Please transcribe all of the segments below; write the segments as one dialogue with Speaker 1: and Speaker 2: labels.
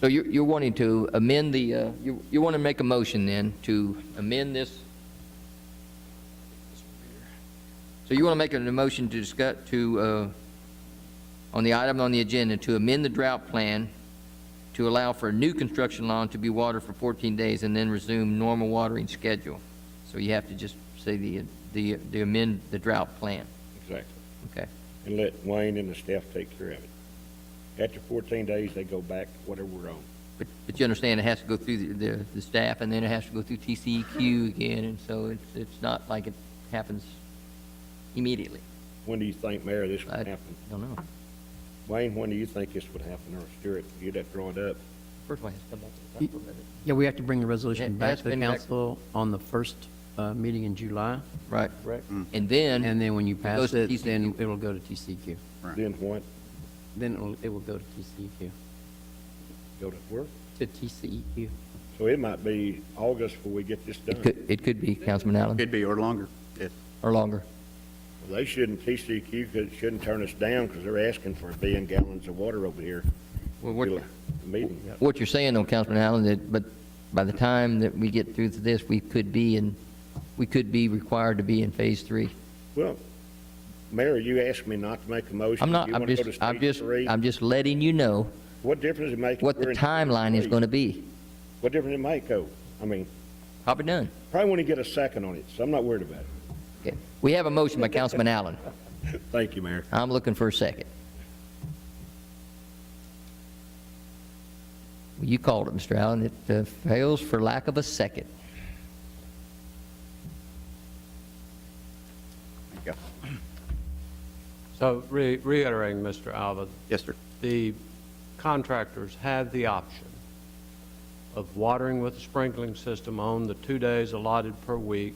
Speaker 1: So you- you're wanting to amend the, uh, you you want to make a motion then to amend this? So you want to make a motion to discuss, to, uh, on the item on the agenda, to amend the drought plan to allow for new construction lawn to be watered for 14 days and then resume normal watering schedule. So you have to just say the, the the amend the drought plan,
Speaker 2: Exactly.
Speaker 1: okay?
Speaker 2: And let Wayne and the staff take care of it. After fourteen days, they go back, whatever we're on.
Speaker 1: But, but you understand it has to go through the, the, the staff and then it has to go through TCEQ again, and so it's, it's not like it happens immediately.
Speaker 2: When do you think, Mayor, this
Speaker 1: I-
Speaker 2: would happen?
Speaker 1: I don't know.
Speaker 2: Wayne, when do you think this would happen, or Stuart, you'd have to draw it up?
Speaker 1: First of all, it has to come back to the council, doesn't it?
Speaker 3: Yeah, we have to bring the
Speaker 1: It
Speaker 3: resolution back
Speaker 1: has
Speaker 3: to the
Speaker 1: been back-
Speaker 3: council on the first uh, meeting in July,
Speaker 1: Right.
Speaker 2: Right.
Speaker 1: Mm-hmm. And then.
Speaker 3: and then when you
Speaker 1: goes
Speaker 3: pass
Speaker 1: to
Speaker 3: it, then
Speaker 1: TCEQ.
Speaker 3: it'll go to TCQ.
Speaker 2: Then what?
Speaker 3: Then it'll, it will go to TCEQ,
Speaker 2: Go to work?
Speaker 3: to E TCEQ.
Speaker 2: So it might be August before we get this
Speaker 1: It
Speaker 2: done.
Speaker 1: could, it could be, Councilman Allen,
Speaker 4: Could be, or longer. It-
Speaker 1: or longer.
Speaker 2: They shouldn't, TCQ could- shouldn't turn us down, because they're asking for a billion gallons of water over here.
Speaker 1: Well, what-
Speaker 2: Till the Meeting.
Speaker 1: What you're saying though, Councilman Allen, that, but by the time that we get through to this, we could be in, we could be required to be in phase three.
Speaker 2: Well, Mayor, you asked me not to make a motion.
Speaker 1: I'm not,
Speaker 2: You
Speaker 1: I'm
Speaker 2: want to go
Speaker 1: just,
Speaker 2: to
Speaker 1: I'm
Speaker 2: stage
Speaker 1: just,
Speaker 2: three?
Speaker 1: I'm just letting you know
Speaker 2: What difference it make? if
Speaker 1: what
Speaker 2: we're
Speaker 1: the
Speaker 2: in stage
Speaker 1: timeline is
Speaker 2: three?
Speaker 1: going to be.
Speaker 2: What difference it make, though? I mean,
Speaker 1: Probably none.
Speaker 2: probably want to get a second on it, so I'm not worried about it.
Speaker 1: Okay. We have a motion by Councilman Allen.
Speaker 2: Thank you, Mayor.
Speaker 1: I'm looking for a second. Well, You called it, Mr. Allen. It uh, fails for lack of a second.
Speaker 4: yeah.
Speaker 5: So re- reiterating, Mr. Alva,
Speaker 4: Yes, sir.
Speaker 5: the contractors have the option of watering with the sprinkling system on the two days allotted per week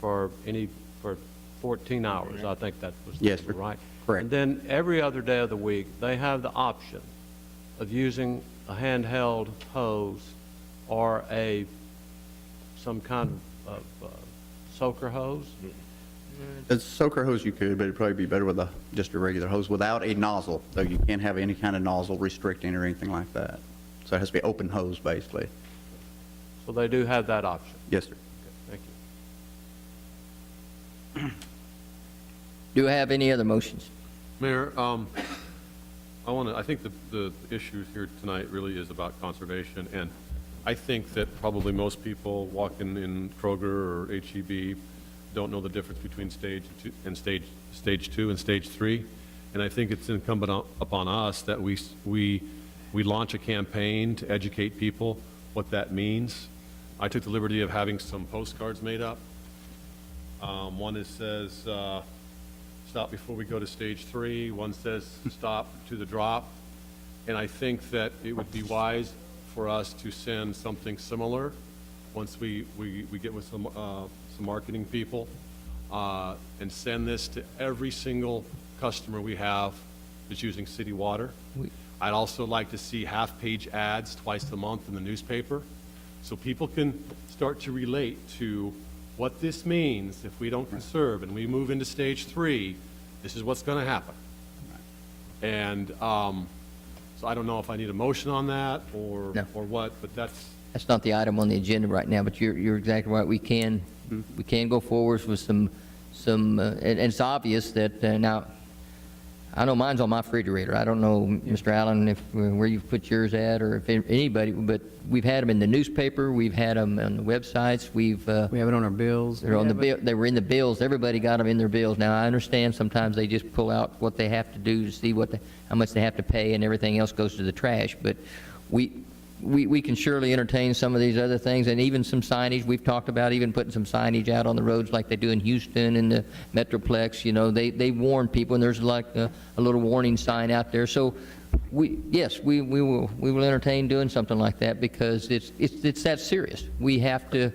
Speaker 5: for any, for 14 hours, I think that was the
Speaker 4: Yes,
Speaker 5: number,
Speaker 4: sir.
Speaker 5: right?
Speaker 4: Correct.
Speaker 5: And then every other day of the week, they have the option of using a handheld hose or a, some kind of uh, soaker hose?
Speaker 4: A soaker hose you could, but it'd probably be better with a, just a regular hose without a nozzle, though you can't have any kind of nozzle restricting or anything like that. So it has to be open hose, basically.
Speaker 5: So they do have that option.
Speaker 4: Yes, sir.
Speaker 5: Thank you.
Speaker 1: Do I have any other motions?
Speaker 6: Mayor, um, I want to, I think the, the issue here tonight really is about conservation, and I think that probably most people walking in Kroger or HEB don't know the difference between stage two and stage, stage two and stage three, and I think it's incumbent on- upon us that we, s- we, we launch a campaign to educate people what that means. I took the liberty of having some postcards made up. Um, one that says, uh, stop before we go to stage three. One says stop to the drop. And I think that it would be wise for us to send something similar once we, we, we get with some, uh, some marketing people, uh, and send this to every single customer we have that's using city water. I'd also like to see half-page ads twice a month in the newspaper, so people can start to relate to what this means if we don't conserve and we move into stage three, this is what's going to happen. And um, so I don't know if I need a motion on that or,
Speaker 1: No.
Speaker 6: or what, but that's,
Speaker 1: That's not the item on the agenda right now, but you're, you're exactly right. We can, we can go forward with some, some, uh, and, and it's obvious that uh, now, I know mine's on my refrigerator. I don't know, Mr. Allen, if, uh, where you've put yours at or if anybody, but we've had them in the newspaper, we've had them on the websites, we've, uh,
Speaker 3: We have it on our bills.
Speaker 1: They're on the
Speaker 3: We have
Speaker 1: bill, they were in the bills, everybody got them in their bills. Now, I understand sometimes they just pull out what they have to do to see what, they- how much they have to pay, and everything else goes to the trash, but we, we, we can surely entertain some of these other things, and even some signage, we've talked about even putting some signage out on the roads like they do in Houston and the Metroplex, you know, they, they warn people, and there's like a, a little warning sign out there, so we, yes, we, we will, we will entertain doing something like that, because it's, it's, it's that serious. We have to,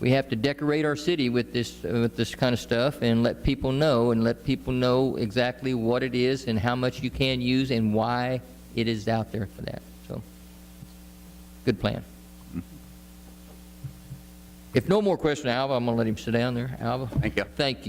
Speaker 1: we have to decorate our city with this, uh, with this kind of stuff and let people know, and let people know exactly what it is and how much you can use and why it is out there for that. So, good plan. If no more questions, Alva, I'm going to let him sit down there. Alva?
Speaker 4: Thank you.
Speaker 1: Thank you.